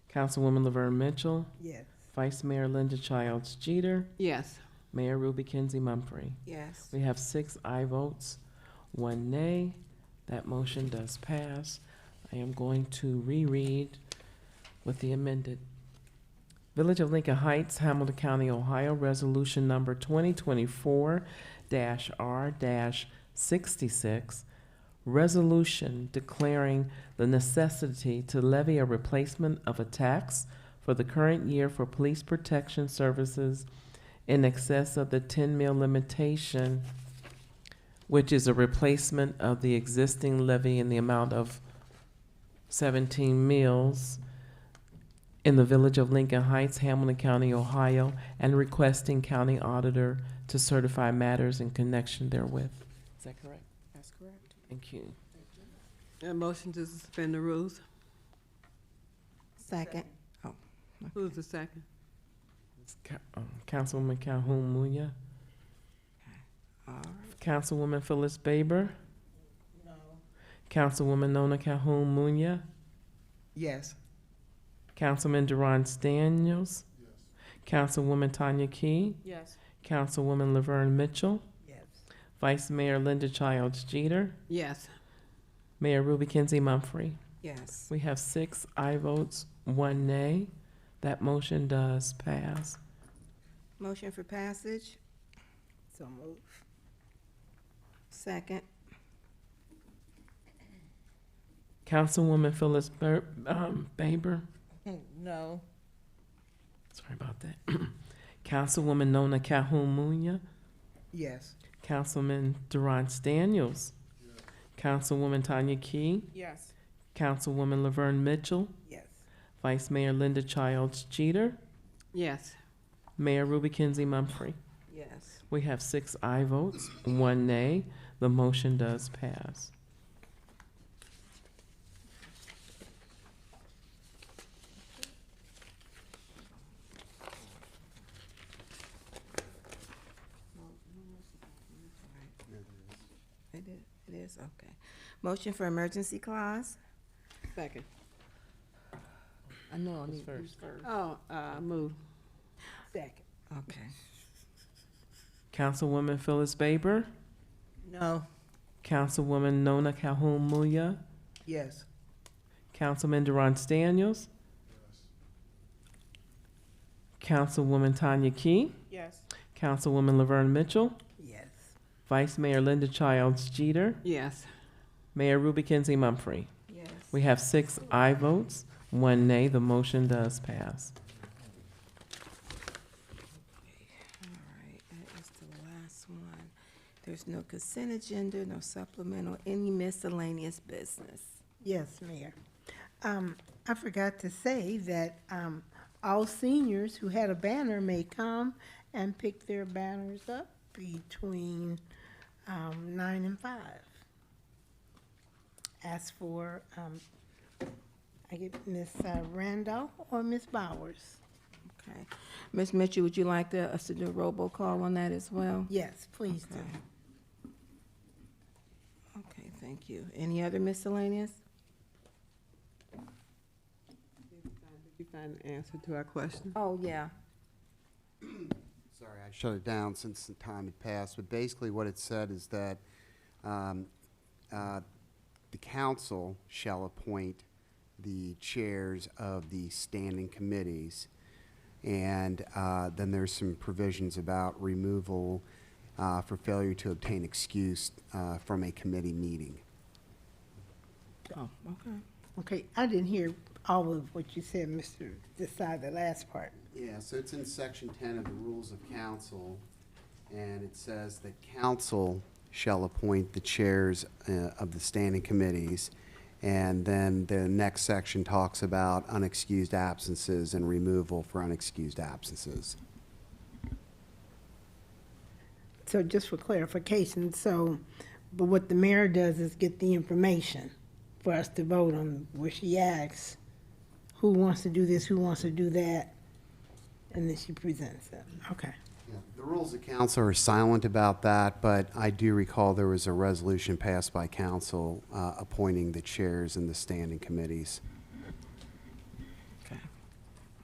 Councilwoman Laverne Mitchell, Yes. Vice Mayor Linda Childs Jeter, Yes. Mayor Ruby Kinsey Mumfree. Yes. We have six aye votes, one nay. That motion does pass. I am going to reread with the amended. Village of Lincoln Heights, Hamilton County, Ohio, Resolution Number 2024-R-66, resolution declaring the necessity to levy a replacement of a tax for the current year for police protection services in excess of the ten mil limitation, which is a replacement of the existing levy in the amount of seventeen mills in the village of Lincoln Heights, Hamilton County, Ohio, and requesting county auditor to certify matters in connection therewith. Is that correct? That's correct. Thank you. A motion to suspend the rules. Second. Oh. Who's the second? It's Ca- um, Councilwoman Calhoun Muia, All right. Councilwoman Phyllis Baber. No. Councilwoman Nona Calhoun Muia. Yes. Councilman Deron Daniels. Councilwoman Tanya Key. Yes. Councilwoman Laverne Mitchell. Yes. Vice Mayor Linda Childs Jeter. Yes. Mayor Ruby Kinsey Mumphrey. Yes. We have six aye votes, one nay. That motion does pass. Motion for passage? So move. Second. Councilwoman Phyllis Ber- um, Baber. Oh, No. Sorry about that. Councilwoman Nona Calhoun Munia. Yes. Councilman Deron Daniels. Councilwoman Tanya Key. Yes. Councilwoman Laverne Mitchell. Yes. Vice Mayor Linda Childs Jeter, Yes. Mayor Ruby Kinsey Mumfree. Yes. We have six aye votes, one nay. The motion does pass. It is, it is, okay. Motion for emergency clause? Second. I know, Who's first? Oh, uh, move. Second. Okay. Councilwoman Phyllis Baber, No. Councilwoman Nona Calhoun Muia, Yes. Councilman Durant Daniels, Councilwoman Tanya Key, Yes. Councilwoman Laverne Mitchell, Yes. Vice Mayor Linda Childs Jeter, Yes. Mayor Ruby Kinsey Mumfree. Yes. We have six aye votes, one nay. The motion does pass. All right, that is the last one. There's no consent agenda, no supplemental, any miscellaneous business. Yes, Mayor. Um, I forgot to say that, um, all seniors who had a banner may come and pick their banners up between, um, nine and five. Ask for, um, I get Miss uh, Randolph or Miss Bowers. Okay. Ms. Mitchell, would you like to- us to do a robocall on that as well? Yes, please do. Okay, thank you. Any other miscellaneous? You find the answer to our question? Oh, yeah. Sorry, I shut it down since the time had passed, but basically what it said is that um, uh, the council shall appoint the chairs of the standing committees. And uh, then there's some provisions about removal uh, for failure to obtain excuse uh, from a committee meeting. Oh, okay. Okay, I didn't hear all of what you said, Mr. Decide, the last part. Yeah, so it's in section ten of the rules of council, and it says that council shall appoint the chairs uh, of the standing committees. And then the next section talks about unexcused absences and removal for unexcused absences. So just for clarification, so, but what the mayor does is get the information for us to vote on, where she asks, who wants to do this, who wants to do that, and then she presents it. Okay. Yeah, The rules of council are silent about that, but I do recall there was a resolution passed by council uh, appointing the chairs and the standing committees.